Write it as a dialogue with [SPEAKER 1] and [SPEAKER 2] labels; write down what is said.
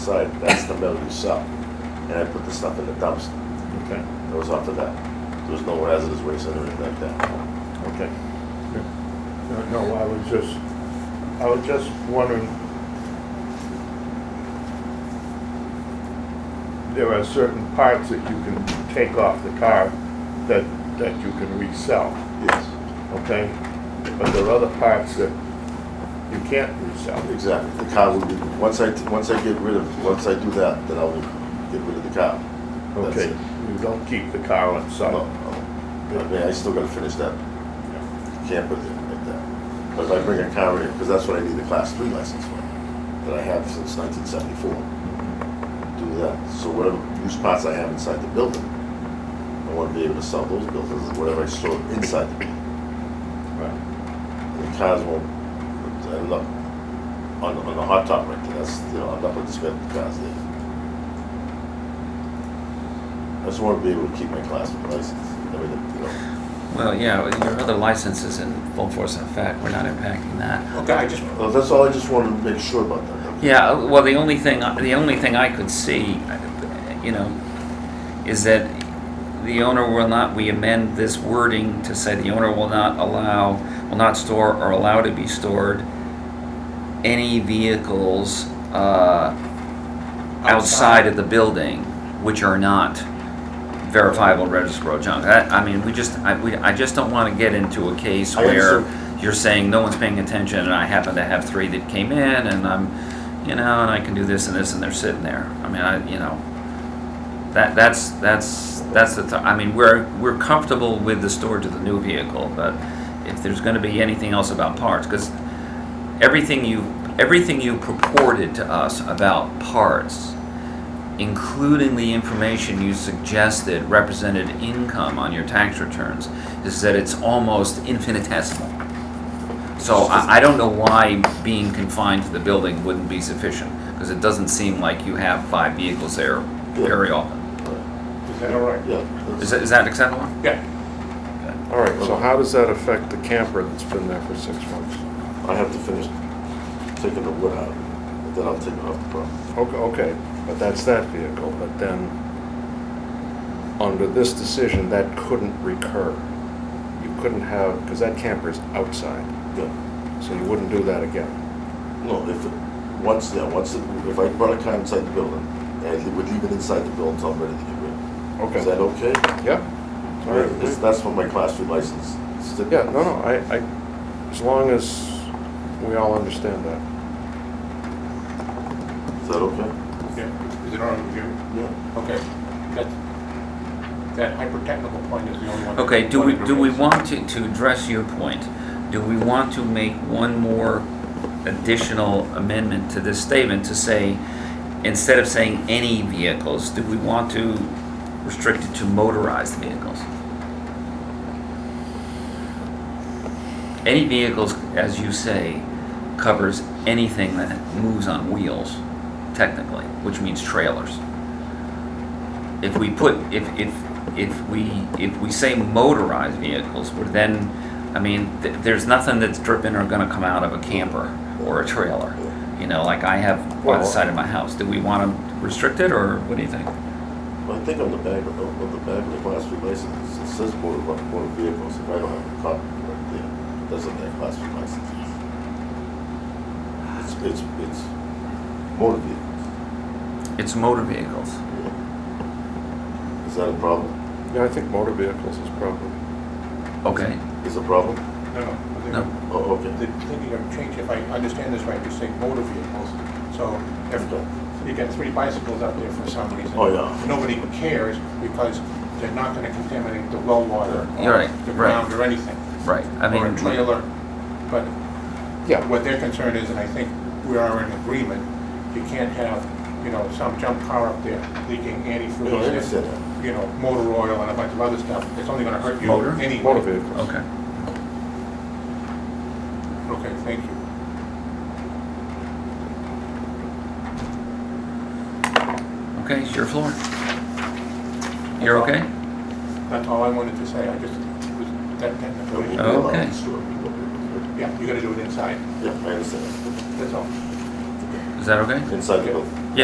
[SPEAKER 1] side, that's the mill you sell. And I put the stuff in the dumpster,
[SPEAKER 2] Okay,
[SPEAKER 1] that was off of that. There was no hazardous waste or anything like that.
[SPEAKER 2] okay.
[SPEAKER 3] No, no, I was just, I was just wondering. There are certain parts that you can take off the car that, that you can resell,
[SPEAKER 1] Yes,
[SPEAKER 3] okay? But there are other parts that you can't resell.
[SPEAKER 1] exactly. The car will be, once I, once I get rid of, once I do that, then I will get rid of the car. That's
[SPEAKER 3] Okay,
[SPEAKER 1] it.
[SPEAKER 3] you don't keep the car on
[SPEAKER 1] No,
[SPEAKER 3] site.
[SPEAKER 1] no. I mean, I still gotta finish that camper thing like that. But if I bring a car in, because that's what I need the class three license for, that I have since nineteen seventy-four. do that. So whatever use parts I have inside the building, I want to be able to sell those buildings, whatever I store inside the building.
[SPEAKER 3] Right.
[SPEAKER 1] And the cars won't, I don't know, on, on the hot top right there, that's, you know, I'm not going to spend the cars there. I just want to be able to keep my class with license, everything, you know.
[SPEAKER 4] Well, yeah, with your other license is in full force and effect, we're not impacting that.
[SPEAKER 5] Okay, I just,
[SPEAKER 1] Well, that's all I just wanted to make sure about that.
[SPEAKER 4] Yeah, well, the only thing, the only thing I could see, you know, is that the owner will not, we amend this wording to say the owner will not allow, will not store or allow to be stored any vehicles, uh, outside of the building, which are not verifiable registrable junk. I, I mean, we just, I, we, I just don't wanna get into a case
[SPEAKER 1] I
[SPEAKER 4] where
[SPEAKER 1] understand.
[SPEAKER 4] you're saying no one's paying attention, and I happen to have three that came in, and I'm, you know, and I can do this and this, and they're sitting there. I mean, I, you know, that, that's, that's, that's the, ti- I mean, we're, we're comfortable with the storage of the new vehicle, but if there's gonna be anything else about parts, cause everything you, everything you purported to us about parts including the information you suggested represented income on your tax returns, is that it's almost infinitesimal. So I, I don't know why being confined to the building wouldn't be sufficient, because it doesn't seem like you have five vehicles there very often.
[SPEAKER 3] Is that all right?
[SPEAKER 1] Yeah.
[SPEAKER 4] Is
[SPEAKER 1] that's-
[SPEAKER 4] that, is that acceptable?
[SPEAKER 5] yeah,
[SPEAKER 6] All right, so how does that affect the camper that's been there for six months?
[SPEAKER 1] I have to finish taking the wood out, and then I'll take it off the property.
[SPEAKER 6] Okay, okay, but that's that vehicle, but then, under this decision, that couldn't recur. You couldn't have, because that camper's outside,
[SPEAKER 1] Yeah.
[SPEAKER 6] so you wouldn't do that again.
[SPEAKER 1] No, if, it- once, yeah, once, it- if I brought a car inside the building, and I would leave it inside the building until I'm ready to get rid of it. Is
[SPEAKER 6] Okay,
[SPEAKER 1] that okay?
[SPEAKER 6] yep. All right.
[SPEAKER 1] It's- That's what my class three license stipulates.
[SPEAKER 6] Yeah, no, no, I, I, as long as we all understand that.
[SPEAKER 1] Is that okay?
[SPEAKER 5] yeah. Is it all right with you?
[SPEAKER 1] Yeah.
[SPEAKER 5] Okay, that, that hyper-technical point is the only one. that
[SPEAKER 4] Okay, do we,
[SPEAKER 5] wanted to
[SPEAKER 4] do we
[SPEAKER 5] raise.
[SPEAKER 4] want to, to address your point? Do we want to make one more additional amendment to this statement to say, instead of saying any vehicles, do we want to restrict it to motorized vehicles? Any vehicles, as you say, covers anything that moves on wheels, technically, which means trailers if we put, if, if, if we, if we say motorized vehicles, we're then, I mean, th- there's nothing that's dripping or gonna come out of a camper or a trailer. You know, like I have by the
[SPEAKER 6] Well-
[SPEAKER 4] side of my house. Do we wanna restrict it, or what do you think?
[SPEAKER 1] Well, I think on the back, of the- on the back of the class three license, it says motor, motor vehicles, if I don't have a copy right there, it doesn't have class three license. It's, it's, it's motor vehicles.
[SPEAKER 4] It's motor vehicles.
[SPEAKER 1] yeah. Is that a problem?
[SPEAKER 6] Yeah, I think motor vehicles is probably,
[SPEAKER 4] Okay,
[SPEAKER 1] Is a problem?
[SPEAKER 5] No, no, I think
[SPEAKER 4] No.
[SPEAKER 5] I'm-
[SPEAKER 1] Oh, okay.
[SPEAKER 5] The thinking of change, if I understand this right, you say motor vehicles, so if you get three bicycles out there for some reason.
[SPEAKER 1] Oh, yeah.
[SPEAKER 5] Nobody cares because they're not gonna contaminate the well water. or
[SPEAKER 4] You're right,
[SPEAKER 5] The
[SPEAKER 4] right.
[SPEAKER 5] ground or anything.
[SPEAKER 4] right, I mean.
[SPEAKER 5] Or a trailer, but
[SPEAKER 6] yeah,
[SPEAKER 5] What their concern is, and I think we are in agreement, you can't have, you know, some junk car up there leaking
[SPEAKER 1] No, I
[SPEAKER 5] antifreeze
[SPEAKER 1] understand that.
[SPEAKER 5] and, you know, motor oil and a bunch of other stuff. It's only gonna hurt you
[SPEAKER 4] Motor?
[SPEAKER 5] anyway.
[SPEAKER 6] motor vehicles.
[SPEAKER 4] Okay,
[SPEAKER 5] Okay, thank you.
[SPEAKER 4] okay, it's your floor. You're okay?
[SPEAKER 5] That's all I wanted to say. I just, it was that technical.
[SPEAKER 1] Okay.
[SPEAKER 4] Oh. Okay.
[SPEAKER 5] Yeah, you gotta do it inside.
[SPEAKER 1] Yeah, I understand.
[SPEAKER 5] That's all.
[SPEAKER 4] Is that okay?
[SPEAKER 1] Inside the building.